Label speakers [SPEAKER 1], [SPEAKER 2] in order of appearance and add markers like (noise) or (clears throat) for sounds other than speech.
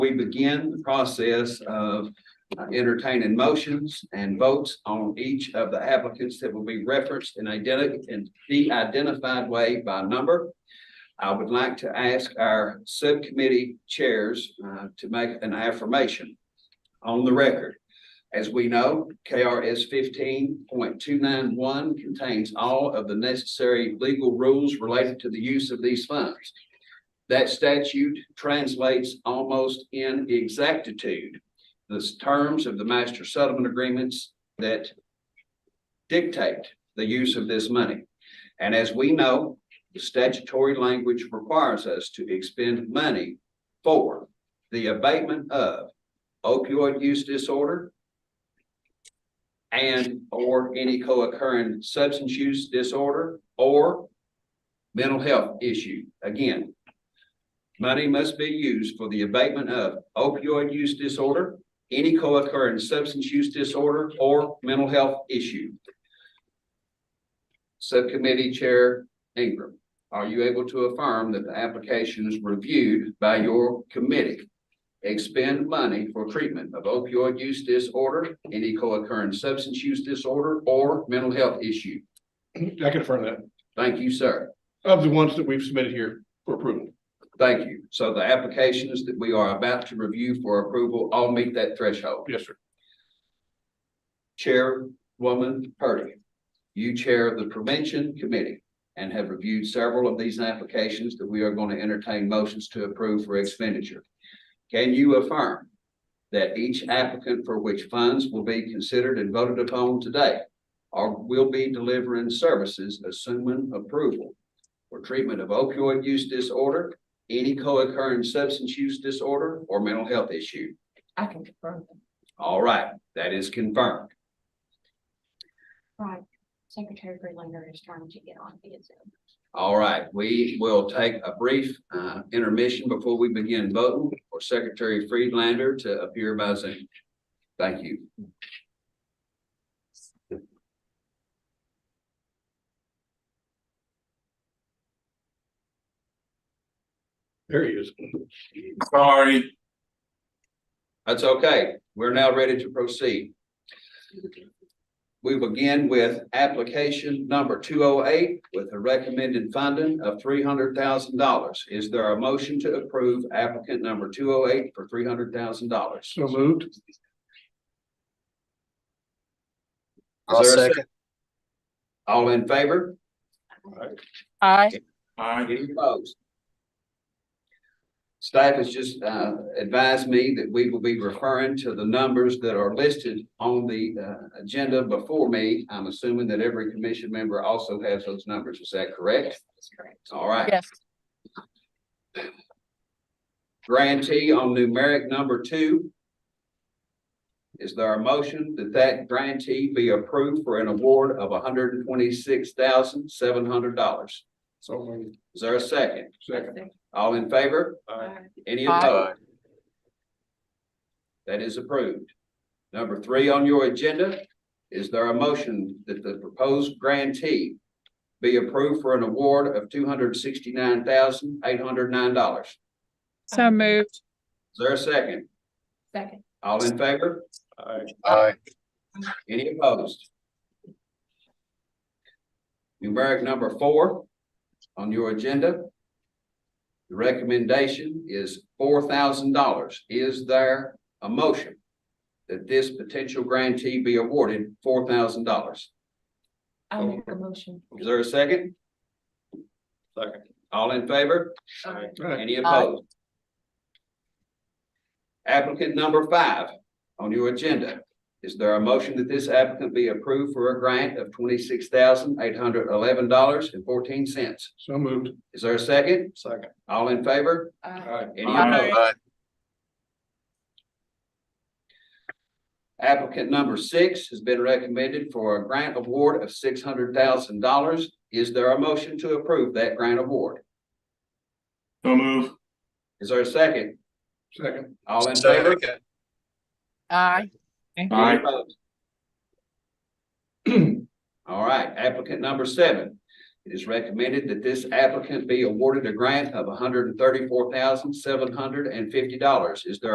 [SPEAKER 1] we begin the process of uh, entertaining motions and votes on each of the applicants that will be referenced in identi- in the identified way by number. I would like to ask our subcommittee chairs uh, to make an affirmation on the record. As we know, KRS fifteen point two nine one contains all of the necessary legal rules related to the use of these funds. That statute translates almost in exactitude the terms of the master settlement agreements that dictate the use of this money. And as we know, the statutory language requires us to expend money for the abatement of opioid use disorder and or any co-occurring substance use disorder or mental health issue. Again, money must be used for the abatement of opioid use disorder, any co-occurring substance use disorder or mental health issue. Subcommittee Chair Ingram, are you able to affirm that the applications reviewed by your committee expend money for treatment of opioid use disorder, any co-occurring substance use disorder or mental health issue?
[SPEAKER 2] I confirm that,
[SPEAKER 1] Thank you, sir.
[SPEAKER 2] of the ones that we've submitted here for approval.
[SPEAKER 1] Thank you. So the applications that we are about to review for approval all meet that threshold.
[SPEAKER 2] Yes, sir.
[SPEAKER 1] Chairwoman Purdy, you chair the prevention committee and have reviewed several of these applications that we are going to entertain motions to approve for expenditure. Can you affirm that each applicant for which funds will be considered and voted upon today or will be delivering services assuming approval for treatment of opioid use disorder, any co-occurring substance use disorder or mental health issue?
[SPEAKER 3] I can confirm them.
[SPEAKER 1] All right, that is confirmed.
[SPEAKER 3] Right. Secretary Freelander is trying to get on via Zoom.
[SPEAKER 1] All right, we will take a brief uh, intermission before we begin voting for Secretary Friedlander to appear by Zoom. Thank you.
[SPEAKER 2] There he is.
[SPEAKER 4] Sorry,
[SPEAKER 1] That's okay. We're now ready to proceed. We begin with application number two oh eight with a recommended funding of three hundred thousand dollars. Is there a motion to approve applicant number two oh eight for three hundred thousand dollars?
[SPEAKER 2] So moved.
[SPEAKER 1] I'll second. All in favor?
[SPEAKER 5] Aye.
[SPEAKER 4] I,
[SPEAKER 1] Any opposed? Staff has just uh, advised me that we will be referring to the numbers that are listed on the uh, agenda before me. I'm assuming that every commission member also has those numbers. Is that correct?
[SPEAKER 3] That's correct.
[SPEAKER 1] All right.
[SPEAKER 5] Yes.
[SPEAKER 1] Grantee on numeric number two. Is there a motion that that grantee be approved for an award of hundred and twenty-six thousand, seven hundred dollars?
[SPEAKER 2] So moved.
[SPEAKER 1] Is there a second?
[SPEAKER 2] Second.
[SPEAKER 1] All in favor?
[SPEAKER 2] Aye.
[SPEAKER 1] Any
[SPEAKER 5] Aye.
[SPEAKER 1] opposed? That is approved. Number three on your agenda, is there a motion that the proposed grantee be approved for an award of two hundred sixty-nine thousand eight hundred nine dollars? Is
[SPEAKER 5] So moved.
[SPEAKER 1] there a second?
[SPEAKER 3] Second.
[SPEAKER 1] All in favor?
[SPEAKER 2] Aye.
[SPEAKER 1] Any opposed? Numeric number four on your agenda. The recommendation is four thousand dollars. Is there a motion that this potential grantee be awarded four thousand dollars?
[SPEAKER 3] I'll make a motion.
[SPEAKER 1] Is there a second?
[SPEAKER 2] Second.
[SPEAKER 1] All in favor?
[SPEAKER 3] Uh,
[SPEAKER 2] Aye.
[SPEAKER 1] Any opposed? Applicant number five on your agenda. Is there a motion that this applicant be approved for a grant of twenty-six thousand eight hundred eleven dollars and fourteen cents?
[SPEAKER 2] So moved.
[SPEAKER 1] Is there a second?
[SPEAKER 2] Second.
[SPEAKER 1] All in favor?
[SPEAKER 3] Aye.
[SPEAKER 2] Aye.
[SPEAKER 1] Any
[SPEAKER 4] Aye.
[SPEAKER 1] opposed? Applicant number six has been recommended for a grant award of six hundred thousand dollars. Is there a motion to approve that grant award?
[SPEAKER 4] so move,
[SPEAKER 1] Is there a second?
[SPEAKER 2] Second.
[SPEAKER 1] All in favor?
[SPEAKER 5] Aye.
[SPEAKER 4] I,
[SPEAKER 1] (clears throat) All right, applicant number seven. It is recommended that this applicant be awarded a grant of hundred and thirty-four thousand, seven hundred and fifty dollars. Is there